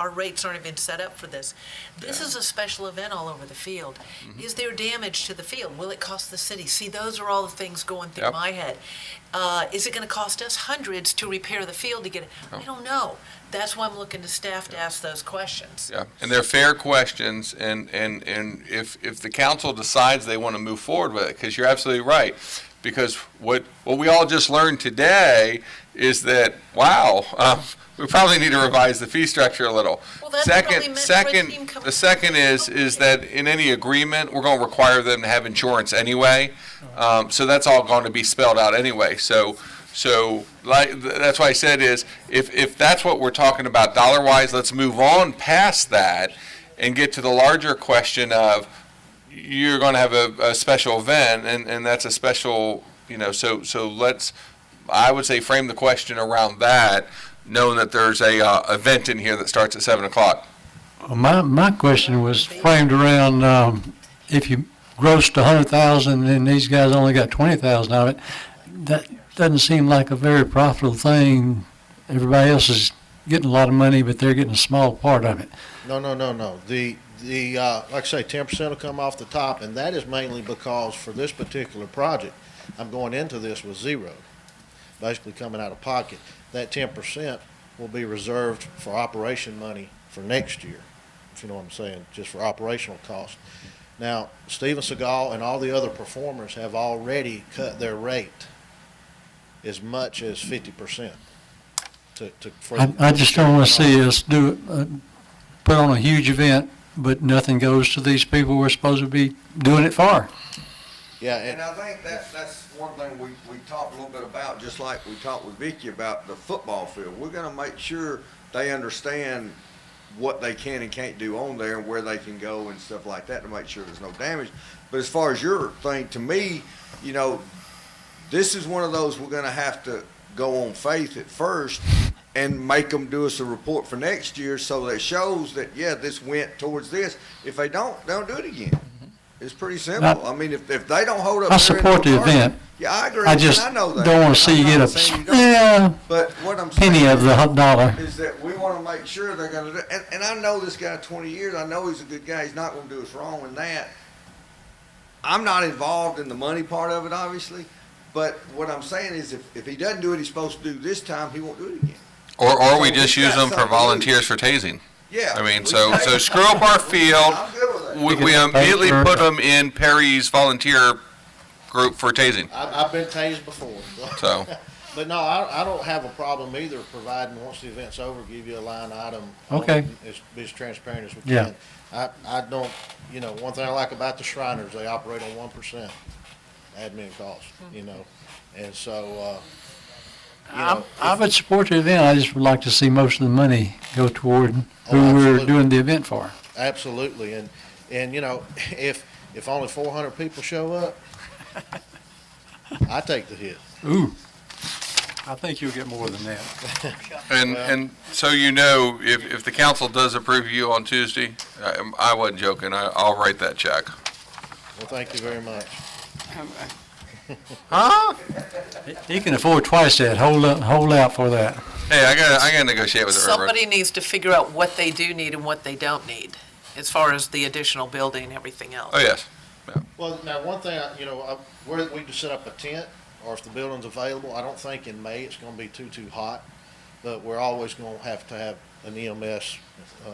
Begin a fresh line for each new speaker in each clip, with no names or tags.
our rates aren't even set up for this. This is a special event all over the field.
Mm-hmm.
Is there damage to the field? Will it cost the city? See, those are all the things going through
Yep.
my head. Uh, Is it going to cost us hundreds to repair the field to get it?
Oh.
I don't know. That's why I'm looking to staff to ask those questions.
Yeah, and they're fair questions, and, and, and if, if the council decides they want to move forward with it, because you're absolutely right. Because what, what we all just learned today is that, wow, um, we probably need to revise the fee structure a little.
Well, that's what we
Second,
meant for team
second,
com-
the second is, is that in any agreement, we're gonna require them to have insurance anyway. Um, so that's all going to be spelled out anyway. So, so like, th- that's why I said is, if, if that's what we're talking about dollar wise, let's move on past that and get to the larger question of, you're gonna have a, a special event and, and that's a special, you know, so, so let's, I would say frame the question around that, knowing that there's a, uh, event in here that starts at seven o'clock.
My, my question was framed around, um, if you grossed a hundred thousand and these guys only got twenty thousand out of it, that doesn't seem like a very profitable thing. Everybody else is getting a lot of money, but they're getting a small part of it.
No, no, no, no. The, the, uh, like I say, ten percent will come off the top, and that is mainly because for this particular project, I'm going into this with zero, basically coming out of pocket. That ten percent will be reserved for operation money for next year, if you know what I'm saying, just for operational costs. Now, Steven Seagal and all the other performers have already cut their rate as much as fifty percent to, to. for-
I, I just don't wanna see us do, uh, put on a huge event, but nothing goes to these people we're supposed to be doing it for.
Yeah, and-
And I think that, that's one thing we, we talked a little bit about, just like we talked with Vicky about the football field. We're gonna make sure they understand what they can and can't do on there and where they can go and stuff like that to make sure there's no damage. But as far as your thing, to me, you know, this is one of those we're gonna have to go on faith at first and make them do us a report for next year so that shows that, yeah, this went towards this. If they don't, they don't do it again. It's pretty simple. I mean, if, if they don't hold up.
Mm-hmm. I
their end
support
of
the
bargain-
event.
Yeah, I agree.
I
and
just
I know that.
don't wanna see you
I'm
get
not
a,
saying you don't.
yeah,
But what I'm saying.
penny of the
is-
hot dollar.
is that we want to make sure they're going to do, and, and I know this guy 20 years, I know he's a good guy, he's not going to do us wrong in that. I'm not involved in the money part of it, obviously, but what I'm saying is if, if he doesn't do it, he's supposed to do this time, he won't do it again.
Or, or we
So
just
we've
use
got
them for
something to
volunteers for tasing.
Yeah.
I mean,
we
so,
say-
so screw up our field.
I'm good with that.
We, we immediately put them in Perry's volunteer group for tasing,
I, I've been tased before.
so.
But no, I, I don't have a problem either, providing once the event's over, give you a line item.
Okay.
As, be as transparent as we
Yeah.
can. I, I don't, you know, one thing I like about the Shriners, they operate on one percent admin costs, you know? And so, uh, you
I
know,
I would support the event, I just would like to see most of the money go toward who
Oh,
we're
absolutely.
doing the event for.
absolutely. And, and you know, if, if only four hundred people show up, I take the hit.
Ooh, I think you'll get more than that.
And, and so you know, if, if the council does approve you on Tuesday, I, I wasn't joking, I, I'll write that check.
Well, thank you very much.
Huh?
He can afford twice that, hold up, hold out for that.
Hey, I gotta, I gotta negotiate with the railroad.
Somebody needs to figure out what they do need and what they don't need, as far as the additional building and everything else.
Oh, yes,
Well, now, one thing, I- you know, I- where we just set up a tent, or if the building's available, I don't think in May it's gonna be too, too hot, but we're always gonna have to have an EMS, uh,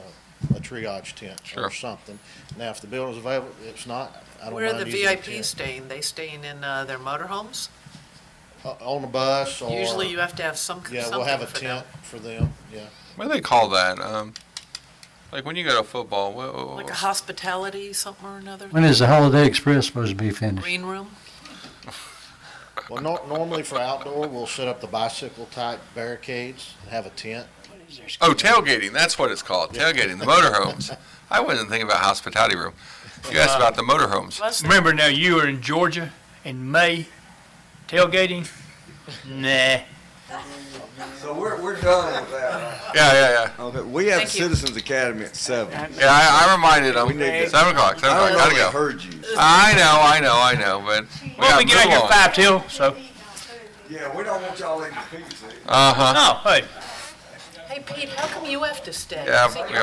a triage tent
Sure.
or something. Now, if the building's available, if it's not, I don't
Where are the
mind using a tent.
VIPs staying? They staying in uh, their motorhomes?
O- Uh, On the bus or.
Usually you have to have some,
Yeah, we'll have
something
a
for them.
tent for them, yeah.
what do they call that, um, like when you go to football, oh, wha- wha-
Like a hospitality, something or another,
When is the Holiday Express supposed to be finished?
green room?
Well, nor- normally for outdoor, we'll set up the bicycle type barricades, and have a tent.
Oh, tailgating, that's what it's called, tailgating, the motorhomes. I wasn't thinking about hospitality room. You asked about the motorhomes.
Plus,
Remember now, you are in Georgia in May, tailgating? Nah.
So we're, we're done with that.
Yeah, yeah, yeah.
Okay, we have
Thank you.
Citizens Academy at seven.
Yeah, I, I reminded
We need
them,
to-
seven o'clock,
I
seven o'clock,
don't know if
gotta
they
go.
heard you.
I know, I know, I know, but we
Well,
gotta
we get out here
move
at
on.
five till, so,
Yeah, we don't want y'all in the pink seat.
Uh-huh.
no, hey,
hey, Pete, how come you have to stay?
Yeah,
See,
yeah,
you're-